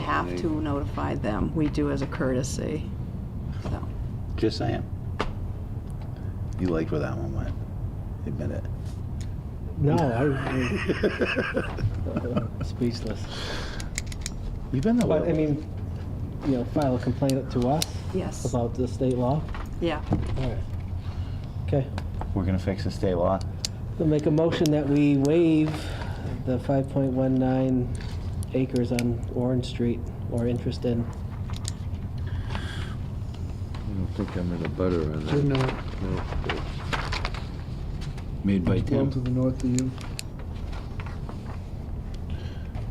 have to notify them. We do as a courtesy. So, Just saying. You liked where that one went. Admit it. No, I, I'm speechless. You've been that way. But I mean, you know, file a complaint to us yes, about the state law. yeah. All right. Okay. we're gonna fix the state law. I'll make a motion that we waive the 5.19 acres on Orange Street or interest in. I don't think I'm in a butter on that. No. Made by Well, Tim. to the north of you.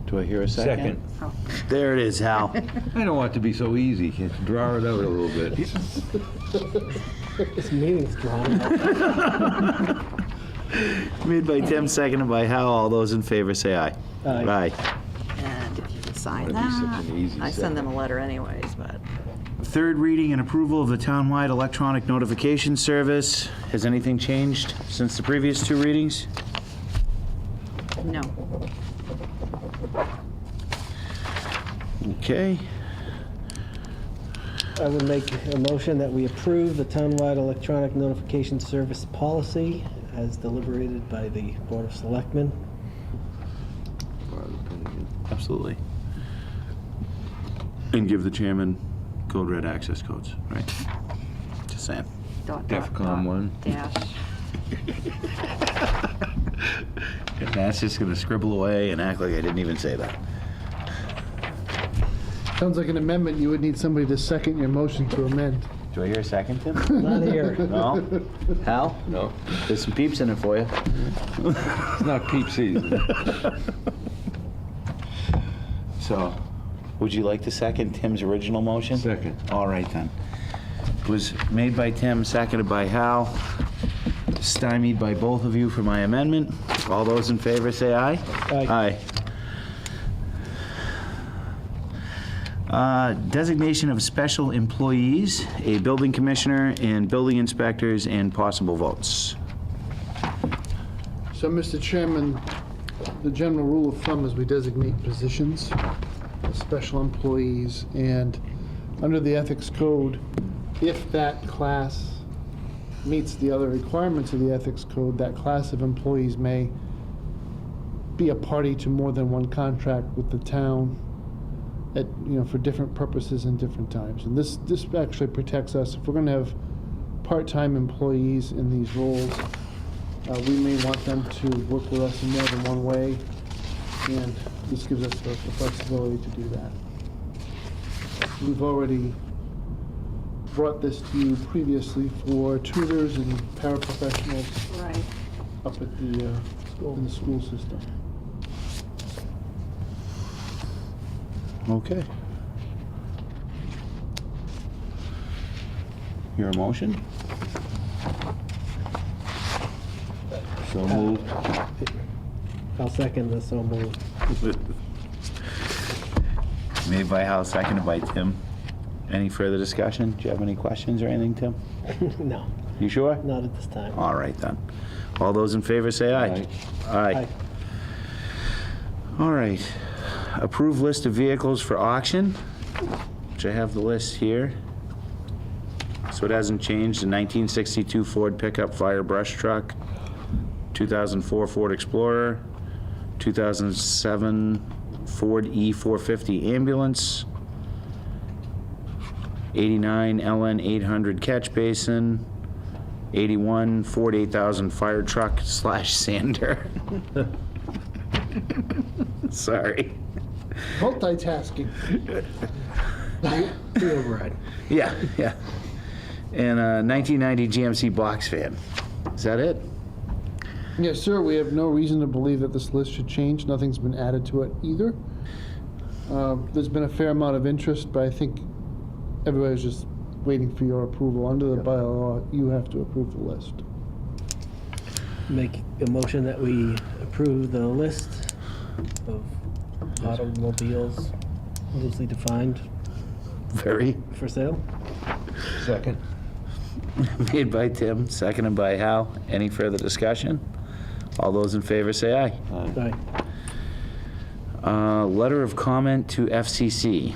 Do I hear a second? Oh. There it is, Hal. I don't want it to be so easy. Draw it out a little bit. This meeting's drawn out. Made by Tim, seconded by Hal. All those in favor say aye. Aye. Aye. And if you could sign That'd be such that, an easy I second. send them a letter anyways, but. Third reading and approval of the townwide electronic notification service. Has anything changed since the previous two readings? No. Okay. I would make a motion that we approve the townwide electronic notification service policy as deliberated by the Board of Selectmen. Absolutely. And give the chairman code red access codes, right? Just saying. Dot, dot, Defcon dot, one. Dash. And that's just gonna scribble away and act like I didn't even say that. Sounds like an amendment, you would need somebody to second your motion to amend. Do I hear a second, Tim? Not here. No? Hal? No, There's some peeps in it for you. it's not peep season. So, would you like to second Tim's original motion? Second. All right then. Was made by Tim, seconded by Hal, stymied by both of you for my amendment. All those in favor say aye. Aye. Aye. Uh, Designation of special employees, a building commissioner and building inspectors, and possible votes. So, Mr. Chairman, the general rule of thumb is we designate positions, as special employees, and under the ethics code, if that class meets the other requirements of the ethics code, that class of employees may be a party to more than one contract with the town at, you know, for different purposes and different times. And this, this actually protects us. If we're gonna have part-time employees in these roles, uh, we may want them to work with us in more than one way, and this gives us the the flexibility to do that. We've already brought this to you previously for tutors and paraprofessionals Right. up at the, uh, in the school system. Okay. Your motion? So moved. I'll second this, so moved. Made by Hal, seconded by Tim. Any further discussion? Do you have any questions or anything, Tim? No, You sure? not at this time. All right, then. All those in favor say aye. Aye. Aye. All right. Approve list of vehicles for auction, which I have the list here. So it hasn't changed, the 1962 Ford pickup fire brush truck, 2004 Ford Explorer, 2007 Ford E450 ambulance, 89 LN 800 catch basin, 81 Ford 8000 fire truck slash sander. Sorry. Multitasking. Yeah, yeah. And uh, a 1990 GMC box fan. Is that it? Yes, sir, we have no reason to believe that this list should change. Nothing's been added to it either. Uh, There's been a fair amount of interest, but I think everybody's just waiting for your approval. Under the bylaw, you have to approve the list. Make a motion that we approve the list of automobiles loosely defined Very. for sale. Second. Made by Tim, seconded by Hal. Any further discussion? All those in favor say aye. Aye. Uh, Letter of comment to FCC.